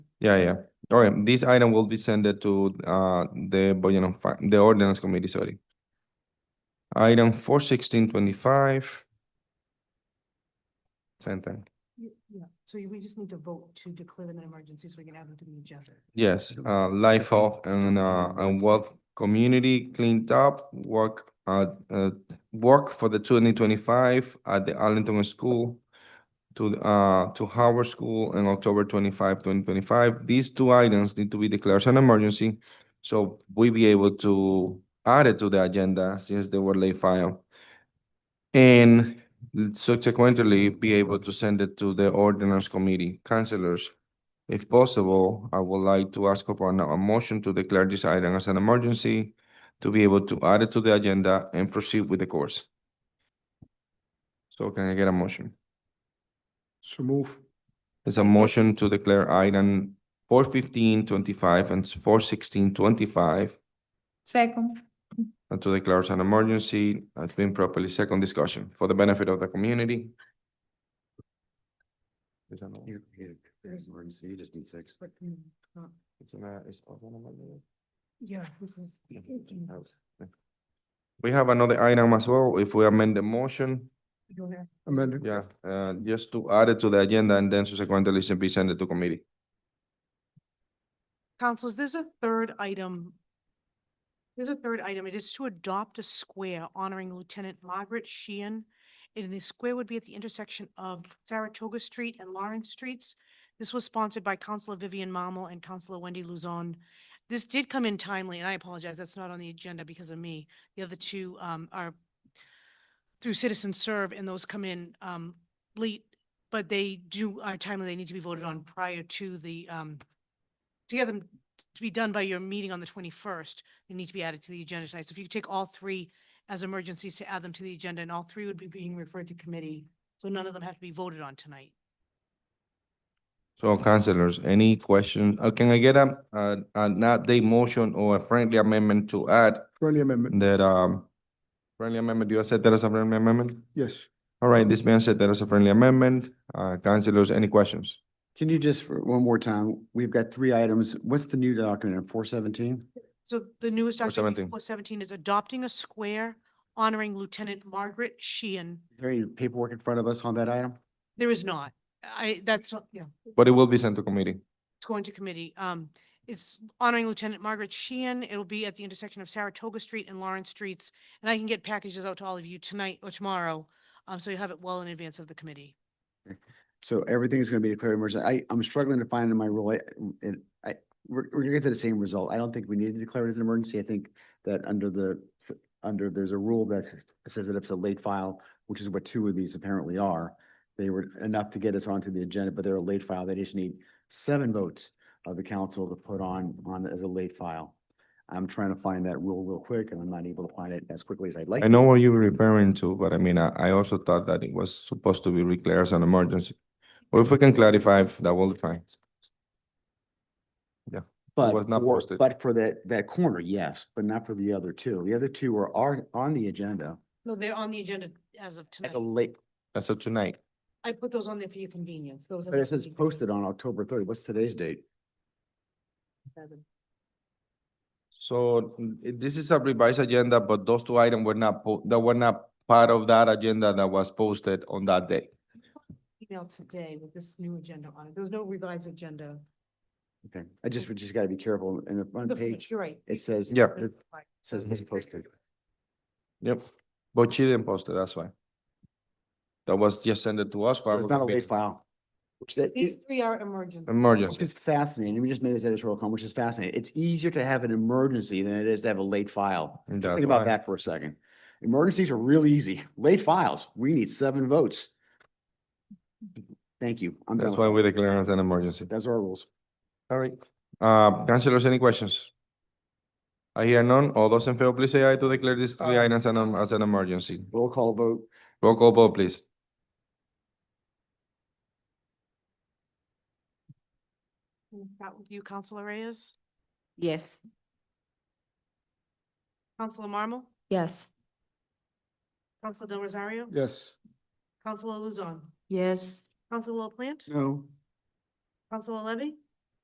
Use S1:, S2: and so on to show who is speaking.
S1: Yeah, yeah. All right, this item will be sent to uh the Budget and Fi- the Ordinance Committee, sorry. Item four sixteen twenty-five. Same thing.
S2: Y- Yeah, so we just need to vote to declare an emergency so we can add them to the agenda.
S1: Yes, uh, life health and, uh, and wealth community cleaned up, work, uh, uh, work for the twenty twenty-five at the Arlington School to, uh, to Howard School in October 25, 2025. These two items need to be declared as an emergency. So we be able to add it to the agenda since they were late file. And subsequently be able to send it to the ordinance committee, councilors. If possible, I would like to ask upon a motion to declare this item as an emergency to be able to add it to the agenda and proceed with the course. So can I get a motion?
S3: So move.
S1: There's a motion to declare item four fifteen twenty-five and four sixteen twenty-five
S4: Second.
S1: and to declare as an emergency. It's been properly second discussion for the benefit of the community. Is that all?
S3: You just need six.
S2: But, mm, uh,
S1: It's an, uh, it's also an emergency.
S2: Yeah. because it can-
S1: We have another item as well, if we amend the motion,
S2: you don't have-
S3: Amended.
S1: yeah, uh, just to add it to the agenda and then subsequently it's be sent it to committee.
S2: Councilors, there's a third item. There's a third item. It is to adopt a square honoring Lieutenant Margaret Sheehan. And the square would be at the intersection of Saratoga Street and Lawrence Streets. This was sponsored by Councilor Vivian Marmel and Councilor Wendy Luzon. This did come in timely, and I apologize, that's not on the agenda because of me. The other two um, are through Citizen Serve, and those come in um, late, but they do are timely. They need to be voted on prior to the um, to get them to be done by your meeting on the twenty-first, they need to be added to the agenda tonight. So if you could take all three as emergencies to add them to the agenda, and all three would be being referred to committee, so none of them have to be voted on tonight.
S1: So councilors, any questions? Uh, can I get a, uh, an update motion or a friendly amendment to add
S3: Friendly amendment,
S1: that, um, friendly amendment, do you accept that as a friendly amendment?
S3: yes.
S1: All right, this man said that as a friendly amendment. Uh, councilors, any questions?
S5: Can you just, for one more time, we've got three items. What's the new document, four seventeen?
S2: So the newest document,
S1: 417.
S2: four seventeen, is adopting a square honoring Lieutenant Margaret Sheehan.
S5: Is there any paperwork in front of us on that item?
S2: There is not. I, that's, not- yeah.
S1: But it will be sent to committee.
S2: It's going to committee. Um, it's honoring Lieutenant Margaret Sheehan. It'll be at the intersection of Saratoga Street and Lawrence Streets. And I can get packages out to all of you tonight or tomorrow. Um, so you'll have it well in advance of the committee.
S5: So everything's gonna be declared emergency. I, I'm struggling to find in my rule, and I, we're, we're gonna get to the same result. I don't think we need to declare it as an emergency. I think that under the, s- under, there's a rule that says- says that if it's a late file, which is what two of these apparently are, they were enough to get us onto the agenda, but they're a late file. They just need seven votes of the council to put on, on as a late file. I'm trying to find that rule real quick, and I'm not able to find it as quickly as I'd like.
S1: I
S5: to.
S1: know what you were referring to, but I mean, I, I also thought that it was supposed to be declared as an emergency. Well, if we can clarify, that will be fine.
S5: But
S1: was not
S5: for-
S1: posted.
S5: But for that, that corner, yes, but not for the other two. The other two are, are on the agenda
S2: No, they're on the agagenda as of
S5: as a
S2: tonight.
S5: late,
S1: As of tonight,
S2: I put those on there for your convenience. Those are.
S5: but
S2: not
S5: it says
S2: being
S5: posted on October thirty. What's today's date?
S2: seven.
S1: so mm, it- this is a revised agenda, but those two items were not, po- that were not part of that agenda that was posted on that day.
S2: Email today with this new agenda on it. There was no revised agenda.
S5: Okay, I just, we just gotta be careful. And the front
S2: The-
S5: page,
S2: You're right.
S5: it says.
S1: Yeah.
S5: It says it's posted.
S1: Yep, but she didn't post it, that's why. That was just sent it to us. for
S5: So
S1: our
S5: It's not a late
S1: convenience.
S5: file. Which that
S2: These
S5: is,
S2: three are emergency.
S1: Emergency.
S5: which is fascinating. We just made this editorial comment, which is fascinating. It's easier to have an emergency than it is to have a late file.
S1: And that's
S5: Think about
S1: why.
S5: that for a second. Emergencies are really easy. Late files, we need seven votes. Thank you. I'm done
S1: That's
S5: with
S1: why
S5: that.
S1: we declare it as an emergency.
S5: That's our rules.
S1: All right. Uh, councilors, any questions? I hear none. All those in favor, please say aye to declare these three
S2: Aye.
S1: items an- as an emergency.
S5: Roll call vote.
S1: Roll call vote, please.
S2: That with you, Counselor Reyes,
S4: Yes.
S2: Counselor Marmal,
S4: Yes.
S2: Counselor Del Rosario,
S3: Yes.
S2: Counselor Luzon,
S4: Yes.
S2: Counselor LaPlante,
S5: No.
S2: Counselor Levy,